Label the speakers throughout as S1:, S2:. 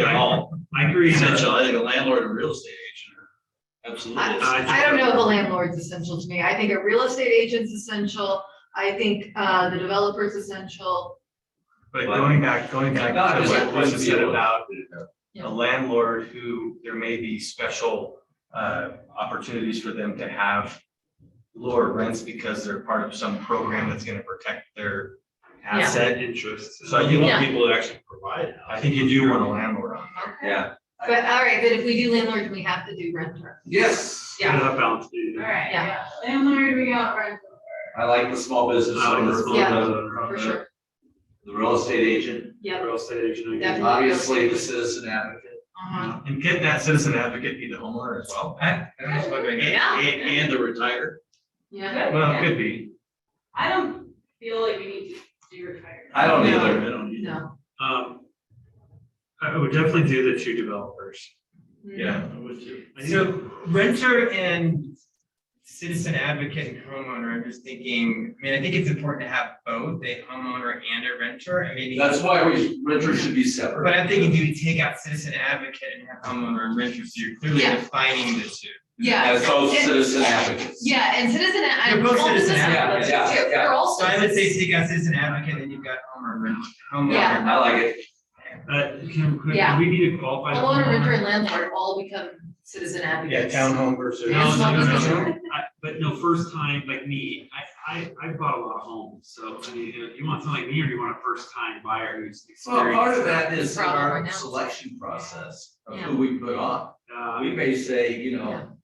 S1: at all
S2: I agree.
S1: essential. I think a landlord and real estate agent are absolutely. essential.
S2: I-
S3: I don't know if a landlord's essential to me. I think a real estate agent's essential. I think uh, the developer's essential.
S2: But going back, going back
S1: Not
S2: to
S1: just
S2: what
S1: one
S2: was said
S1: deal.
S2: about
S3: Yeah.
S2: a landlord who, there may be special uh opportunities for them to have lower rents because they're part of some program that's gonna protect their
S3: Yeah.
S2: asset.
S4: interest.
S2: So you
S3: Yeah.
S2: want people,
S4: People that actually provide.
S2: I think you do want a landlord on.
S1: Yeah.
S3: But all right, but if we do landlord, we have to do renter.
S4: Yes.
S3: Yeah.
S4: That balance. needed.
S5: Alright,
S3: Yeah.
S5: yeah, landlord, we got rental.
S1: I like the small business
S4: I like this
S1: owner,
S4: one
S3: Yeah,
S4: better.
S3: For sure.
S1: the real estate agent,
S3: Yeah.
S4: Real estate agent. I guess.
S3: Definitely.
S1: obviously the citizen advocate.
S3: Uh-huh.
S2: And can that citizen advocate be the homeowner as well? I- I don't know.
S1: And,
S3: Yeah.
S1: and the retired.
S3: Yeah.
S2: Well, it could be.
S5: I don't feel like we need to do retirement.
S1: I don't
S3: No.
S1: either. I don't either.
S3: No.
S4: Um, I would definitely do the two developers.
S3: Mm.
S2: Yeah.
S4: I would too. I think-
S6: So renter and citizen advocate and homeowner, I'm just thinking, I mean, I think it's important to have both, a homeowner and a renter, I mean.
S1: That's why we, renters should be
S6: But
S1: separate.
S6: I'm thinking, do you take out citizen advocate and have homeowner and renter, so you're clearly
S3: Yeah.
S6: defining the two.
S3: Yeah.
S1: As both
S3: And-
S1: citizen advocates.
S3: Yeah, and citizen, I'm.
S6: They're both citizen
S1: advocates. Yeah, yeah, yeah.
S3: They're all
S6: So I would say
S3: citizens.
S6: take out citizen advocate, then you've got homeowner, renter,
S3: Yeah.
S6: homeowner.
S1: I like it.
S4: Uh, Kim, could,
S3: Yeah.
S4: do we need to qualify. the
S3: Homeowner, renter,
S4: homeowner?
S3: and landlord all become citizen advocates.
S2: townhome versus.
S4: No,
S3: Yes,
S4: no,
S3: well,
S4: no,
S3: that's
S4: no.
S3: true.
S4: I, but no, first time, like me, I, I, I bought a lot of homes, so I mean, you know, you want someone like me or you want a first time buyer who's
S1: Well,
S4: experienced?
S1: part of that is
S3: Problem right
S1: our
S3: now.
S1: selection process of who we put on.
S4: Uh,
S1: We may say, you
S3: Yeah.
S1: know,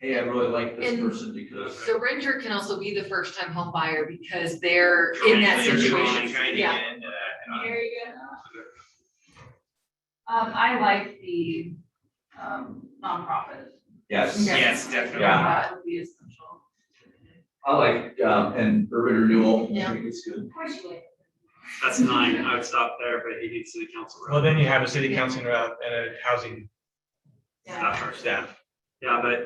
S1: hey, I really like this
S3: And-
S1: person because.
S3: So renter can also be the first time home buyer because they're in that
S4: They're trying to
S3: situation.
S6: Trying to
S3: Yeah.
S6: get into that.
S5: There you go. Um, I like the, um, nonprofit.
S1: Yes.
S3: Yeah.
S6: Yes, definitely.
S1: Yeah.
S5: That would be essential.
S1: I like, um, and urban renewal. I
S3: Yeah.
S1: think It's good.
S5: Of course you would.
S4: That's nine, I would stop there, but he needs city council. rep.
S6: Well, then you have a city council rep and a housing
S4: Stop first.
S6: staff.
S4: Yeah, but. uh,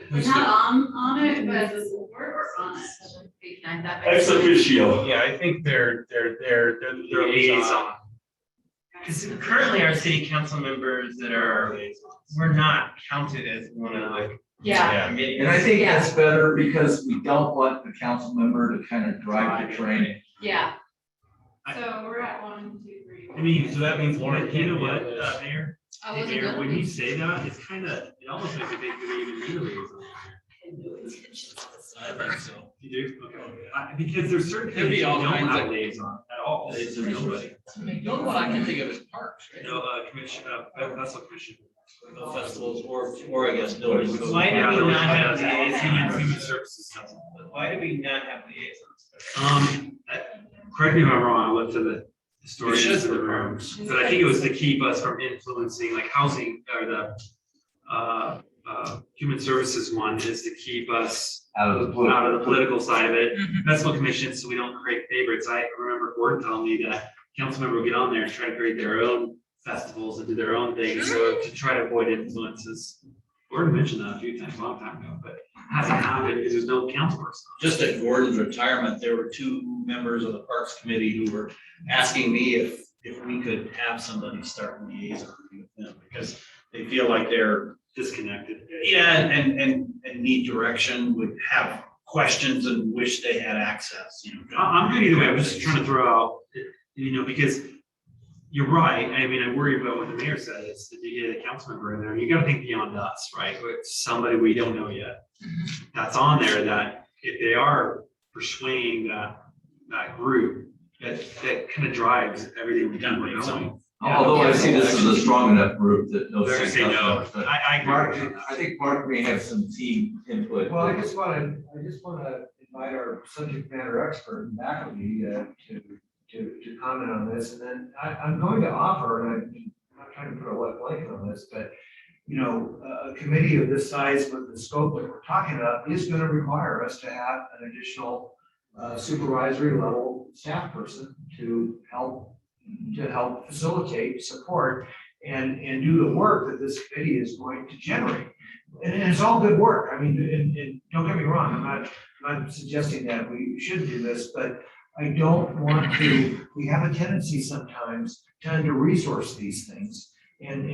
S5: We're
S4: who's
S5: not
S4: the-
S5: on, on it, but the board or on it.
S3: Seven, eight, nine, that makes
S4: Ex officio.
S6: Yeah, I think they're, they're, they're, they're the
S4: Their liaison.
S6: Because currently our city council members that are, we're not counted as one of the.
S3: Yeah,
S1: And I
S6: Committees.
S1: think that's better because we don't want the council member to kind of drive the train.
S3: yeah,
S5: So we're at one, two, three.
S4: I mean, so that means,
S6: Lauren
S4: you know
S6: can't be
S4: what,
S6: on this.
S4: uh, Mayor,
S3: I
S4: Hey,
S3: wasn't
S4: Mayor, when
S3: gonna.
S4: you say that, it's kind of, it almost makes me think that they even need a liaison. You do? Okay. I- Because there's certain
S1: There'd be
S4: things you
S1: all
S4: don't
S1: kinds
S4: have
S1: of-
S4: liaison at all.
S1: It's a
S4: nobody.
S1: nobody. The only one I can think of is parks,
S4: No, uh, commission, uh, uh, that's what commission.
S1: No festivals or, or I guess buildings.
S6: Why do we
S4: Yeah,
S6: not have
S4: that's-
S6: the-
S4: it's Human, human services. council.
S6: Why do we not have liaisons?
S4: Um, I- correct me if I'm wrong, I looked to the historians of the room, but I think it was to keep us from influencing, like housing or the uh, uh, human services one is to keep us
S1: Out of the blue.
S4: out of the political side of it. Festival commission, so we don't create favorites. I remember Gordon telling me that council member would get on there and try to create their own festivals and do their own things, so to try to avoid influences. Gordon mentioned that a few times, a long time ago, but it hasn't happened because there's no council person.
S1: just at Gordon's retirement, there were two members of the Parks Committee who were asking me if, if we could have somebody start liaison with them, because they feel like they're,
S4: Disconnected.
S1: yeah, and, and, and need direction, would have questions and wish they had access, you know.
S4: I- I'm good either way, I'm just trying to throw out, you know, because you're right, I mean, I worry about what the mayor said, is that you get a council member in there, you gotta think beyond us, right? It's somebody we don't know yet, that's on there that if they are pursuing that, that group, that, that kind of drives everything we do.
S1: Kind of
S4: we're
S1: makes
S4: doing.
S7: Although I see this as a strong enough group that no.
S4: They're gonna say no, I, I
S7: Mark,
S4: agree.
S7: I think Mark may have some team input.
S8: Well, I just wanna, I just wanna invite our subject matter expert, McAfee, uh, to, to, to comment on this, and then I, I'm going to offer, and I'm not trying to put a wet blanket on this, but, you know, a- a committee of this size with the scope that we're talking about is gonna require us to have an additional uh, supervisory level staff person to help, to help facilitate, support, and, and do the work that this committee is going to generate. And it's all good work. I mean, and, and don't get me wrong, I'm not, I'm not suggesting that we should do this, but I don't want to, we have a tendency sometimes to under-resource these things. And,